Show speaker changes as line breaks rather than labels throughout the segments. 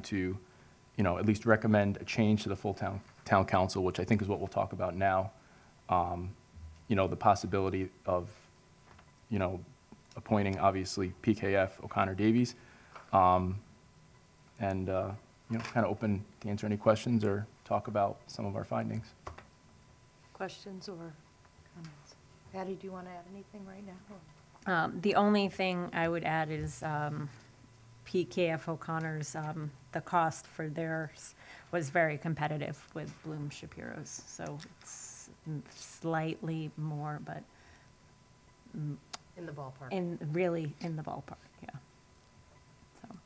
to, you know, at least recommend a change to the full town, town council, which I think is what we'll talk about now. Um, You know, the possibility of, you know, appointing, obviously, PKF O'Connor Davies. Um, And, uh, you know, kind of open to answer any questions or talk about some of our findings.
Questions or comments? Patty, do you want to add anything right now?
Um, The only thing I would add is um, PKF O'Connor's, um, the cost for theirs was very competitive with Bloom Shapiro's. So it's slightly more, but
In the ballpark.
in, really in the ballpark, yeah. So,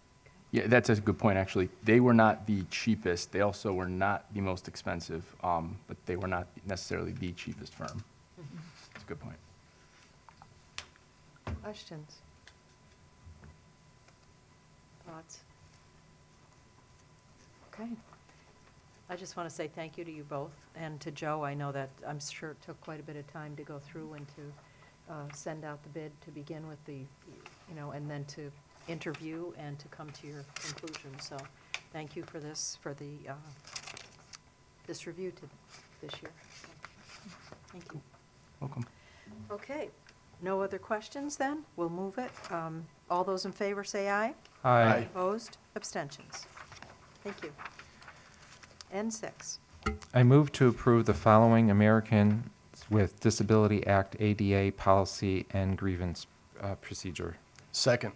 Yeah, that's a good point, actually. They were not the cheapest. They also were not the most expensive, um, but they were not necessarily the cheapest firm. That's a good point.
Questions? Thoughts? Okay. I just want to say thank you to you both and to Joe. I know that, I'm sure it took quite a bit of time to go through and to uh, send out the bid to begin with the, you know, and then to interview and to come to your conclusion. So thank you for this, for the, uh, this review to this year. Thank you.
Welcome.
Okay, no other questions then? We'll move it. Um, All those in favor say aye.
Aye.
Opposed, abstentions. Thank you. N6,
I move to approve the following Americans with Disability Act ADA policy and grievance uh, procedure.
Second.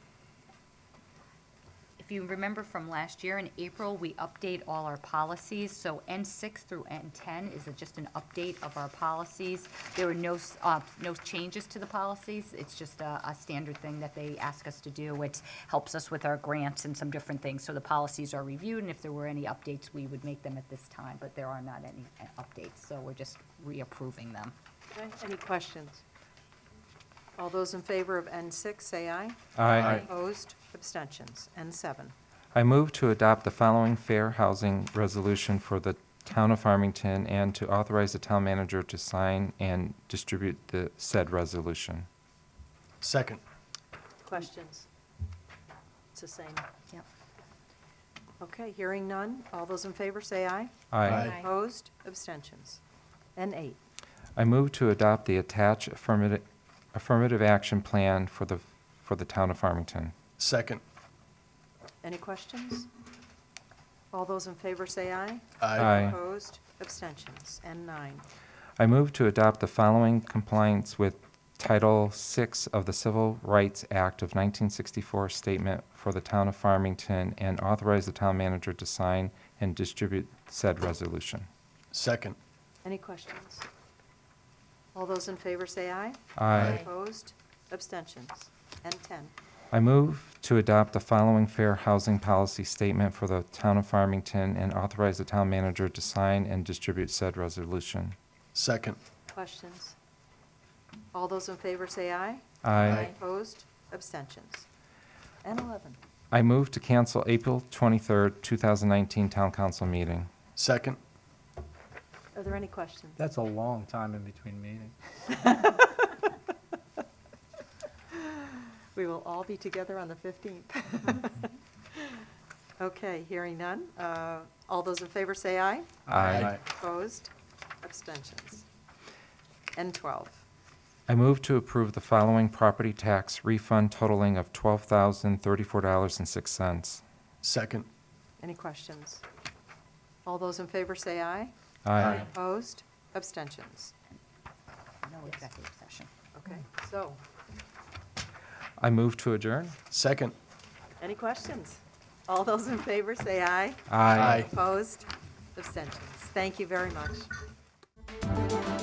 If you remember from last year, in April, we update all our policies, so N6 through N10 is just an update of our policies. There were no, s- uh, no changes to the policies, it's just a, a standard thing that they ask us to do. It helps us with our grants and some different things, so the policies are reviewed, and if there were any updates, we would make them at this time, but there are not any uh, updates, so we're just reapproving them.
Okay, any questions? All those in favor of N6 say aye.
Aye.
Opposed, abstentions. N7,
I move to adopt the following fair housing resolution for the town of Farmington and to authorize the town manager to sign and distribute the said resolution.
Second.
questions? It's the same.
Yep.
Okay, hearing none. All those in favor say aye.
Aye.
Opposed, abstentions. N8,
I move to adopt the attached affirmative, affirmative action plan for the, for the town of Farmington.
Second.
any questions? All those in favor say aye.
Aye.
Opposed, abstentions, and nine.
I move to adopt the following compliance with Title VI of the Civil Rights Act of 1964 statement for the town of Farmington and authorize the town manager to sign and distribute said resolution.
Second.
Any questions? All those in favor say aye.
Aye.
Opposed, abstentions, and 10.
I move to adopt the following fair housing policy statement for the town of Farmington and authorize the town manager to sign and distribute said resolution.
Second.
Questions? All those in favor say aye.
Aye.
Opposed, abstentions, and 11.
I move to cancel April 23rd, 2019 town council meeting.
Second.
Are there any questions?
That's a long time in between meetings.
We will all be together on the 15th. Okay, hearing none. Uh, All those in favor say aye.
Aye.
Opposed, abstentions, and 12.
I move to approve the following property tax refund totaling of twelve thousand thirty-four dollars and six cents.
Second.
Any questions? All those in favor say aye.
Aye.
Opposed? Abstentions?
No executive session.
Okay, so,
I move to adjourn.
Second.
any questions? All those in favor say aye.
Aye.
Opposed? Abstentions? Thank you very much.